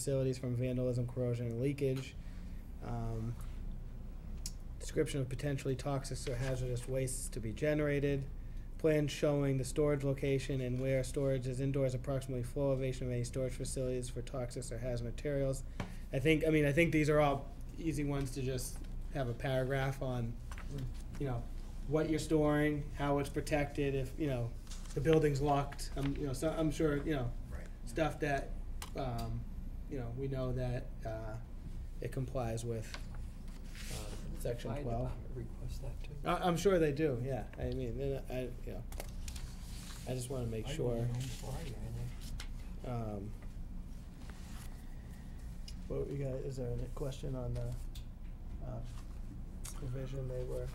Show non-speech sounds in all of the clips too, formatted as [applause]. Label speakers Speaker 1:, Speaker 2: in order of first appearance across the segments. Speaker 1: facilities from vandalism, corrosion, and leakage. Um, Description of potentially toxic or hazardous wastes to be generated. Plan showing the storage location and where storage is indoors, approximately flow elevation of any storage facilities for toxic or hazardous materials. I think, I mean, I think these are all easy ones to just have a paragraph on, you know, what you're storing, how it's protected, if, you know, the building's locked, I'm, you know, so, I'm sure, you know,
Speaker 2: Right.
Speaker 1: stuff that, um, you know, we know that, uh, it complies with, um, section
Speaker 3: Fire
Speaker 1: twelve.
Speaker 3: department Request that too.
Speaker 1: I, I'm sure they do, yeah, I mean, then I, you know, I just wanna make
Speaker 3: I don't
Speaker 1: sure,
Speaker 3: know why you're in there.
Speaker 1: um. What, you got, is there a question on the, uh, provision they were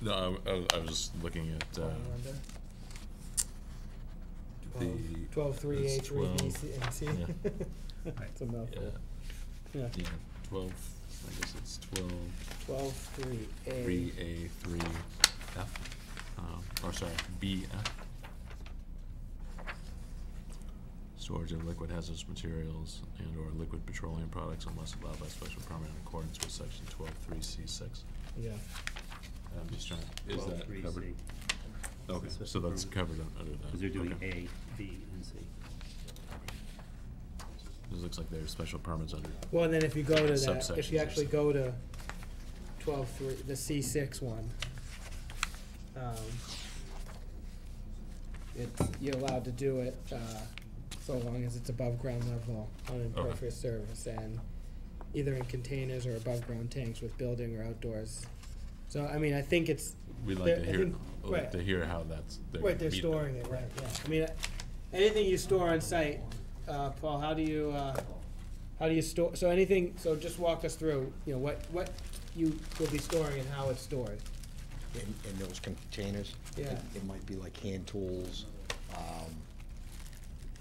Speaker 4: No, I- I, was- I was just looking at, uh, the.
Speaker 1: Twelve, three,
Speaker 4: it's
Speaker 1: A, three, B,
Speaker 4: 12.
Speaker 1: C, and C.
Speaker 4: yeah.
Speaker 1: [laughs] It's a mouthful. Yeah,
Speaker 4: Yeah, yeah, twelve, I guess it's twelve,
Speaker 1: twelve, three, A.
Speaker 4: three A, three F, um, or sorry, B F. Storage of liquid hazardous materials and or liquid petroleum products unless allowed by special permit in accordance with section twelve, three, C, six.
Speaker 1: Yeah,
Speaker 4: I'm just trying, is
Speaker 2: Well,
Speaker 4: that
Speaker 2: three
Speaker 4: covered? Oh,
Speaker 2: C.
Speaker 4: Okay, so that's
Speaker 2: approved.
Speaker 4: covered un- under that.
Speaker 2: Because they're doing
Speaker 4: okay.
Speaker 2: A, B, and C.
Speaker 4: This looks like there's special permits under,
Speaker 1: well, and then if you go to that, if
Speaker 4: Subsections
Speaker 1: you
Speaker 4: or
Speaker 1: actually
Speaker 4: something.
Speaker 1: go to twelve, three, the C six one, um, it's, you're allowed to do it, uh, so long as it's above ground level on impervious surface and either in containers or above ground tanks with building or outdoors. So, I mean, I think it's,
Speaker 4: we'd
Speaker 1: There-
Speaker 4: like to
Speaker 1: I
Speaker 4: hear,
Speaker 1: think-
Speaker 4: like
Speaker 1: right.
Speaker 4: to hear how that's. they're
Speaker 1: Right, they're
Speaker 4: meeting
Speaker 1: storing it, right, yeah. I mean, uh, anything you store on site, uh, Paul, how do you, uh, how do you store, so anything, so just walk us through, you know, what, what you will be storing and how it's stored.
Speaker 5: in, in those containers. It-
Speaker 1: Yeah.
Speaker 5: It might be like hand tools, um,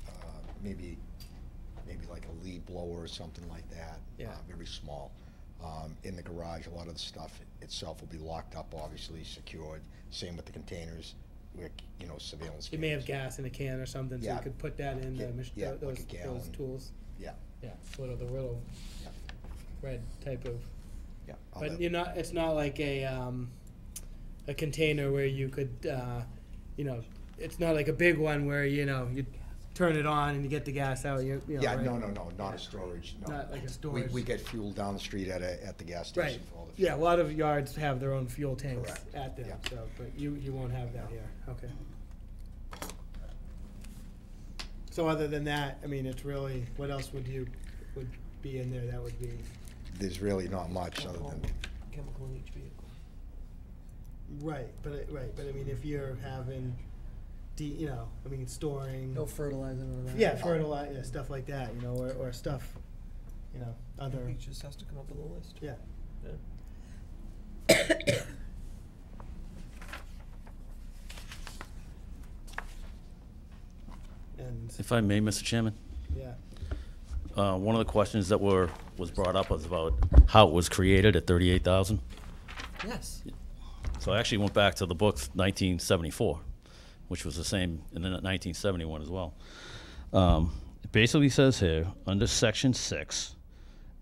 Speaker 5: uh, maybe, maybe like a lead blower or something like that.
Speaker 1: Yeah.
Speaker 5: uh, Very small. Um, in the garage, a lot of the stuff itself will be locked up, obviously secured, same with the containers, with, you know, surveillance
Speaker 1: You may have
Speaker 5: cameras.
Speaker 1: gas in a can or something, so you
Speaker 5: Yeah.
Speaker 1: could put that in the,
Speaker 5: Yeah,
Speaker 1: mach-
Speaker 5: yeah,
Speaker 1: tho-
Speaker 5: like
Speaker 1: those,
Speaker 5: a
Speaker 1: those
Speaker 5: gallon.
Speaker 1: tools.
Speaker 5: Yeah,
Speaker 1: Yeah, little, the little
Speaker 5: yeah,
Speaker 1: red type of,
Speaker 5: yeah. all
Speaker 1: but
Speaker 5: that-
Speaker 1: you're not, it's not like a, um, a container where you could, uh, you know, it's not like a big one where, you know, you turn it on and you get the gas out, you, you know,
Speaker 5: Yeah,
Speaker 1: right?
Speaker 5: no, no, no, not a storage, no.
Speaker 1: Not like a
Speaker 5: We-
Speaker 1: storage.
Speaker 5: We get fuel down the street at a, at the gas
Speaker 1: Right,
Speaker 5: station for all the.
Speaker 1: yeah, a
Speaker 5: fuel.
Speaker 1: lot of yards have their own fuel tanks
Speaker 5: Correct.
Speaker 1: at them,
Speaker 5: Yeah.
Speaker 1: so, but you, you won't have that here, okay. So other than that, I mean, it's really, what else would you, would be in there that would be,
Speaker 5: There's really not much other than,
Speaker 3: Chemical in each vehicle.
Speaker 1: right, but, it- right, but I mean, if you're having, de- you know, I mean, storing,
Speaker 3: No fertilizer or that.
Speaker 1: yeah, fertilizer, yeah, stuff like that, you know, or, or stuff, you know, other,
Speaker 3: He just has to come up with a list.
Speaker 1: yeah.
Speaker 3: Yeah.
Speaker 1: And,
Speaker 6: If I may, Mr. Chairman,
Speaker 1: yeah,
Speaker 6: uh, one of the questions that were, was brought up was about how it was created at 38,000.
Speaker 3: Yes.
Speaker 6: So I actually went back to the books 1974, which was the same in the 1971 as well. Um, It basically says here, under section six,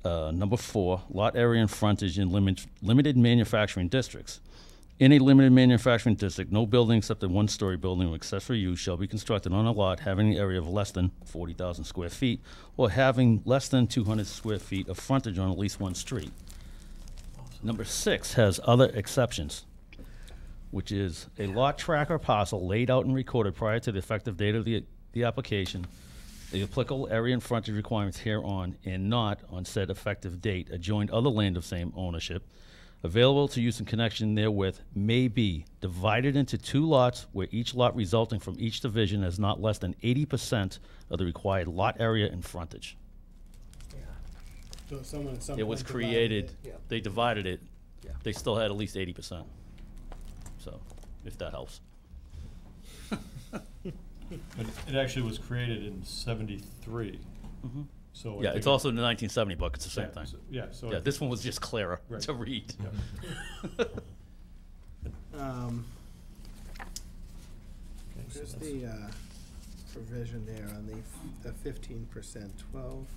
Speaker 6: uh, number four, lot area and frontage in limit- limited manufacturing districts. In a limited manufacturing district, no building except a one-story building with accessory use shall be constructed on a lot having an area of less than 40,000 square feet or having less than 200 square feet of frontage on at least one street. Number six has other exceptions, which is a lot track or parcel laid out and recorded prior to the effective date of the, the application, the applicable area and frontage requirements hereon and not on said effective date adjoined other land of same ownership, available to use in connection therewith may be divided into two lots where each lot resulting from each division has not less than eighty percent of the required lot area and frontage.
Speaker 3: Yeah.
Speaker 1: so someone at some point.
Speaker 6: It was
Speaker 1: divided
Speaker 6: created,
Speaker 3: Yeah.
Speaker 6: they divided it,
Speaker 3: Yeah.
Speaker 6: they still had at least eighty percent. So, if that helps.
Speaker 7: But it actually was created in seventy-three, so. I
Speaker 6: Mm-hmm. Yeah,
Speaker 7: think
Speaker 6: it's
Speaker 7: it-
Speaker 6: also in the nineteen seventy book, it's the
Speaker 7: yeah,
Speaker 6: same thing.
Speaker 7: so- Yeah, so.
Speaker 6: Yeah,
Speaker 7: I
Speaker 6: this
Speaker 7: think-
Speaker 6: one was just clearer
Speaker 7: Right.
Speaker 6: to read. [laughs]
Speaker 1: Um, There's the uh, provision there on the, f- the fifteen percent, twelve,